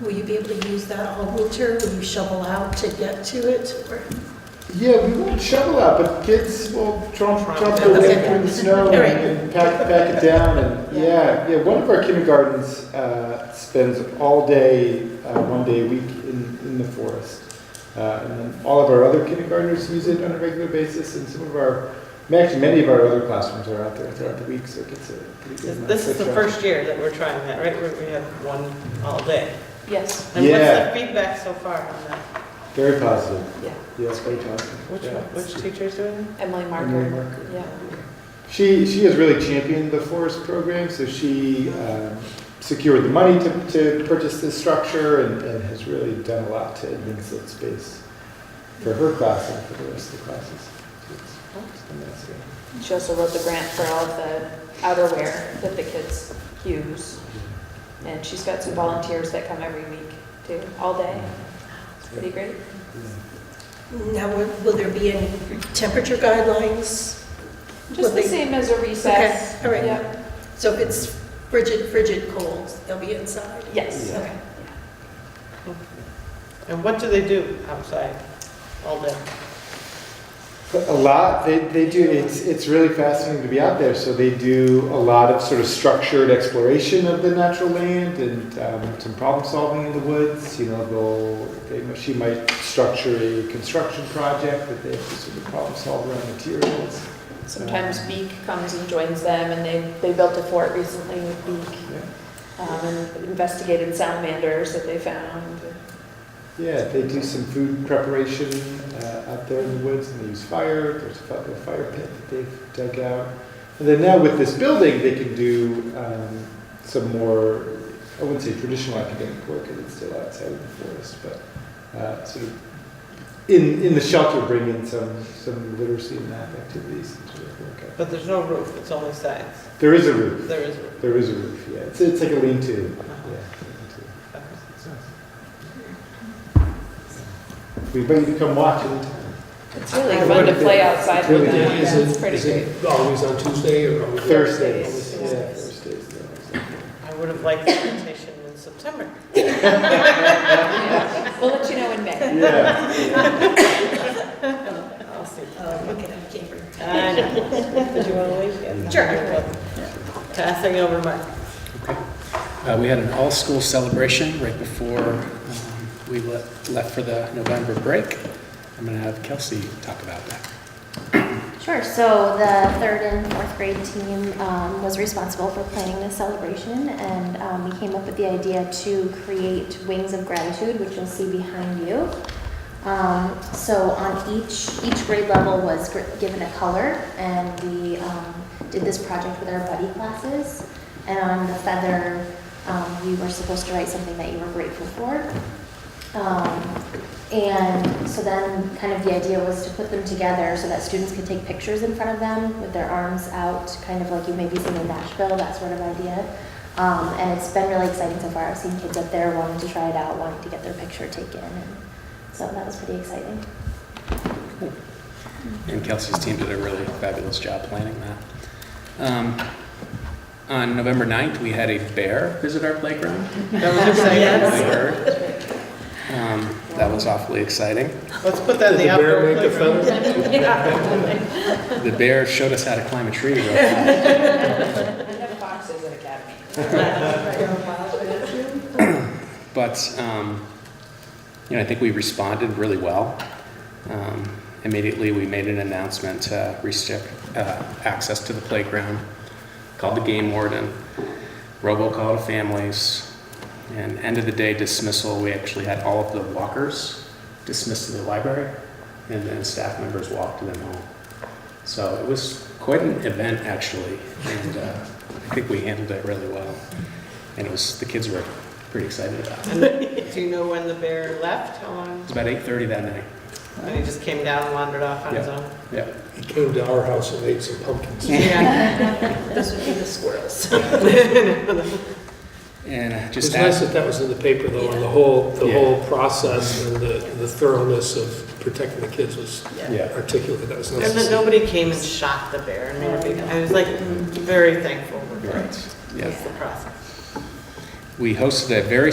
Will you be able to use that all winter? Will you shovel out to get to it? Or- Yeah, we won't shovel out, but kids will jump, jump Okay. over through the snow All right. and and pack, pack it down and, yeah, yeah, one of our kindergartens, uh, spends all day, uh, one day a week in, in the forest. Uh, and then all of our other kindergartners use it on a regular basis and some of our, actually many of our other classrooms are out there throughout the week, so it gets a pretty good. amount This is of the travel. first year that we're trying that, right? We we have one all day. Yes. And Yeah. what's the feedback so far on that? Very positive. Yeah. Yes, very positive. Which, Yeah. one- which teacher's doing it? Emily Emily Marker. Marker. Yeah. She, she has really championed the forest program, so she um, secured the money to, to purchase this structure and, and has really done a lot to advance that space for her class and for the rest of the classes. So it's- it's been nice, yeah. She also wrote the grant for all of the outerwear that the kids use. And she's got some volunteers that come every week too, all day. It's pretty great. Yeah. Now, will will there be any temperature guidelines? Just the Lovely. same as a recess. Okay, all right. Yep. So if it's frigid, frigid cold, they'll be inside? Yes. Yeah. Okay. And what do they do outside all day? A lot, they, they do, it's, it's really fascinating to be out there, so they do a lot of sort of structured exploration of the natural land and um, some problem solving in the woods, you know, they'll, they, she might structure a construction project that they have to sort of problem solve around materials. Sometimes Beek comes and joins them and they, they built a fort recently with Beek. um, and investigated salamanders that they found. Yeah, they do some food preparation uh, out there in the woods, and they use fire. There's a fi- a fire pit that they've dug out. And then now with this building, they can do um, some more, I wouldn't say traditional academic work, because it's still outside of the forest, but uh, sort of in, in the shelter, bring in some, some literacy and math activities and sort of work out. But there's no roof, it's only sides. There is a roof. There is a roof. There is a roof, yeah. It's, it's like a lean-to. Uh-huh. Yeah. lean-to. Okay. We invite you to come watch anytime. It's really I fun wonder to if play it- outside it's with really them. good. Yeah, it's pretty Is great. it always on Tuesday or? always- Thursdays. Yeah, Thursdays. Thursdays. they're always like that. I would have liked the invitation in September. Yeah. We'll let you know in May. Yeah. I'll see. Oh, okay, I can't remember. I know. Did you want to leave yet? Sure. Passing over my. Uh, We had an all-school celebration right before um, we le- left for the November break. I'm going to have Kelsey talk about that. Sure, so the third and fourth grade team um, was responsible for planning this celebration, and um, we came up with the idea to create wings of gratitude, which you'll see behind you. Um, So on each, each grade level was gr- given a color, and we um, did this project with our buddy classes. And on the feather, um, you were supposed to write something that you were grateful for. Um, and so then, kind of the idea was to put them together so that students could take pictures in front of them with their arms out, kind of like you may be seeing in Nashville, that sort of idea. Um, and it's been really exciting so far. I've seen kids up there wanting to try it out, wanting to get their picture taken. And so that was pretty exciting. And Kelsey's team did a really fabulous job planning that. Um, On November 9th, we had a bear visit our playground. Oh, Yes. Um, That was awfully exciting. Let's put that in the outdoor playground. The bear showed us how to climb a tree real fast. We have boxes at Academy. But, um, you know, I think we responded really well. Um, Immediately, we made an announcement to restrict uh, access to the playground, called the game warden, robocall to families, and end of the day dismissal, we actually had all of the walkers dismissed to the library, and then staff members walked them home. So it was quite an event, actually, and uh, I think we handled it really well. And it was, the kids were pretty excited about it. Do you know when the bear left? How long? It was about 8:30 that night. And he just came down and wandered off on his own? Yeah. It He came to our house and ate some pumpkins. Yeah. Those would be the squirrels. And It was just nice ask, that that was in the paper though, and the whole, the Yeah. whole process and the the thoroughness of protecting the kids was yeah, articulated. That was And nice to then see. nobody came and shot the bear. I mean, I think- I was like very thankful. you're right. Yeah. That's the process. We hosted a very